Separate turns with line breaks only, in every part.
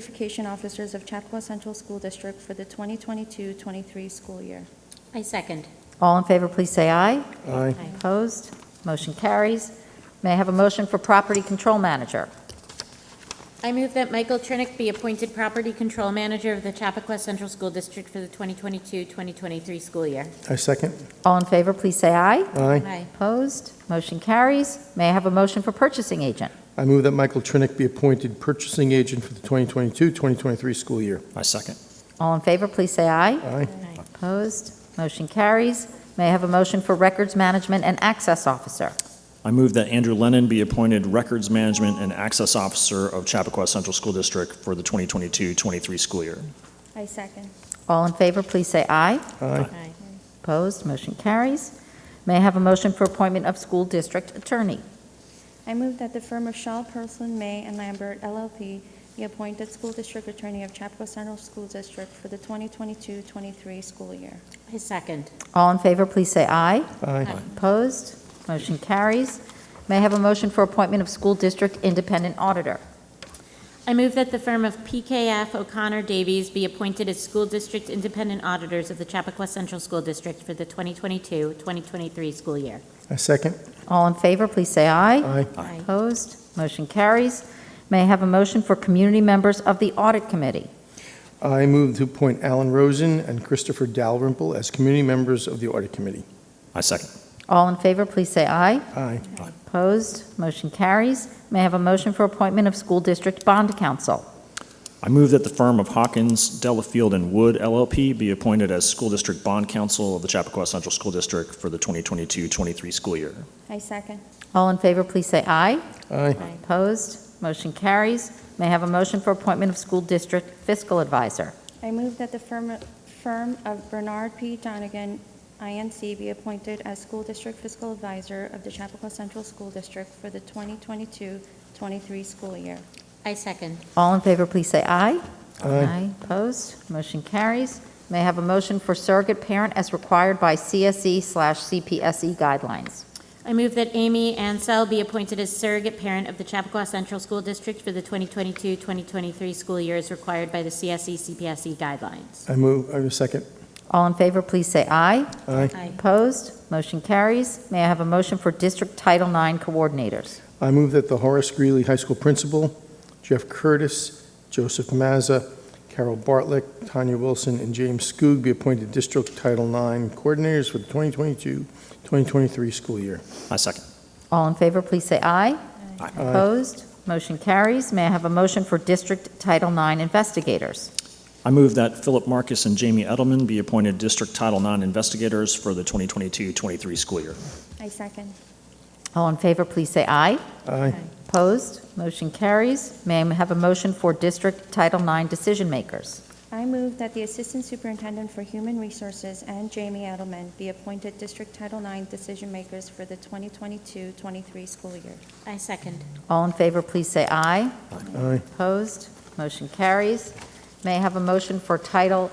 certification officers of Chapua Central School District for the 2022-23 school year.
I second.
All in favor, please say aye.
Aye.
Opposed? Motion carries. May I have a motion for Property Control Manager?
I move that Michael Trinick be appointed Property Control Manager of the Chappaqua Central School District for the 2022-2023 school year.
I second.
All in favor, please say aye.
Aye.
Aye.
Opposed? Motion carries. May I have a motion for Purchasing Agent?
I move that Michael Trinick be appointed purchasing agent for the 2022-2023 school year.
I second.
All in favor, please say aye.
Aye.
Opposed? Motion carries. May I have a motion for Records Management and Access Officer?
I move that Andrew Lennon be appointed Records Management and Access Officer of Chappaqua Central School District for the 2022-23 school year.
I second.
All in favor, please say aye.
Aye.
Aye.
Opposed? Motion carries. May I have a motion for Appointment of School District Attorney?
I move that the firm of Shaw, Person, May, and Lambert LLP be appointed school district attorney of Chapua Central School District for the 2022-23 school year.
I second.
All in favor, please say aye.
Aye.
Opposed? Motion carries. May I have a motion for appointment of School District Independent Auditor?
I move that the firm of PKF O'Connor Davies be appointed as School District Independent Auditors of the Chappaqua Central School District for the 2022-2023 school year.
I second.
All in favor, please say aye.
Aye.
Aye.
Opposed? Motion carries. May I have a motion for community members of the Audit Committee?
I move to appoint Alan Rosen and Christopher Dalrymple as community members of the audit committee.
I second.
All in favor, please say aye.
Aye.
Opposed? Motion carries. May I have a motion for appointment of School District Bond Counsel?
I move that the firm of Hawkins, Delafield, and Wood LLP be appointed as School District Bond Counsel of the Chappaqua Central School District for the 2022-23 school year.
I second.
All in favor, please say aye.
Aye.
Opposed? Motion carries. May I have a motion for appointment of School District Fiscal Advisor?
I move that the firm, firm of Bernard P. Donigan, INC, be appointed as school district fiscal advisor of the Chapakua Central School District for the 2022-23 school year.
I second.
All in favor, please say aye.
Aye.
Opposed? Motion carries. May I have a motion for surrogate parent as required by CSE slash CPSE E guidelines?
I move that Amy Ansell be appointed as surrogate parent of the Chappaqua Central School District for the 2022-2023 school year as required by the E CSE CPSE guidelines.
I move, I second.
All in favor, please say aye.
Aye.
Aye.
Opposed? Motion carries. May I have a motion for district Title IX coordinators?
I move that the Horace Greeley High School principal, Jeff Curtis, Joseph Mazza, Carol Bartlett, Tanya Wilson, and James Skoog be appointed District Title IX Coordinators for the 2022-2023 school year.
I second.
All in favor, please say aye.
Aye.
Opposed? Motion carries. May I have a motion for district Title IX investigators?
I move that Philip Marcus and Jamie Edelman be appointed District Title IX Investigators for the 2022-23 school year.
I second.
All in favor, please say aye.
Aye.
Opposed? Motion carries. May I have a motion for district Title IX decision makers?
I move that the assistant superintendent for human resources and Jamie Edelman be appointed district Title IX decision makers for the 2022-23 school year.
I second.
All in favor, please say aye.
Aye.
Opposed? Motion carries. May I have a motion for Title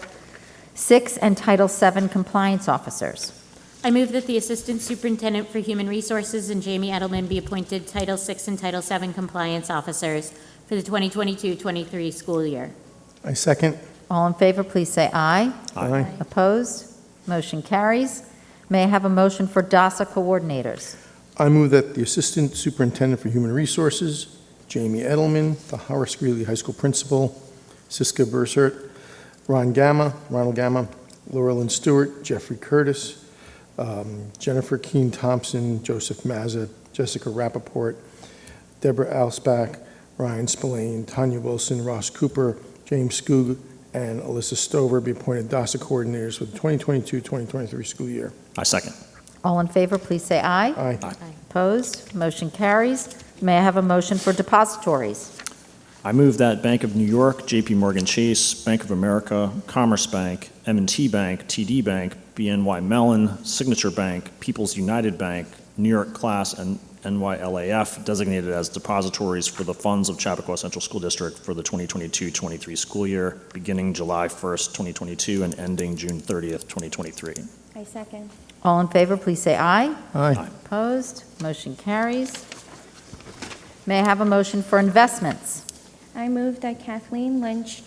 VI and Title VII compliance officers?
I move that the Assistant Superintendent for Human Resources and Jamie Edelman be appointed Title VI and Title VII Compliance Officers for the 2022-23 school year.
I second.
All in favor, please say aye.
Aye.
Opposed? Motion carries. May I have a motion for DASA coordinators?
I move that the Assistant Superintendent for Human Resources, Jamie Edelman, the Horace Greeley High School Principal, Siska Bursert, Ron Gamma, Ronald Gamma, Laurelyn Stewart, Jeffrey Curtis, um, Jennifer Keen Thompson, Joseph Mazza, Jessica Rappaport, Deborah Alsbach, Ryan Spillane, Tanya Wilson, Ross Cooper, James Skoog, and Alyssa Stover be appointed DASA coordinators for the 2022-2023 school year.
I second.
All in favor, please say aye.
Aye.
Opposed? Motion carries. May I have a motion for depositories?
I move that Bank of New York, JP Morgan Chase, Bank of America, Commerce Bank, m and t Bank, TD Bank, BNY Mellon, Signature Bank, People's United Bank, New York Class, and NYLAF designated as depositories for the funds of Chappaqua Central School District for the 2022-23 school year, beginning July 1st, 2022, and ending June 30th, 2023.
I second.
All in favor, please say aye.
Aye.
Opposed? Motion carries. May I have a motion for investments?
I move that Kathleen Lynch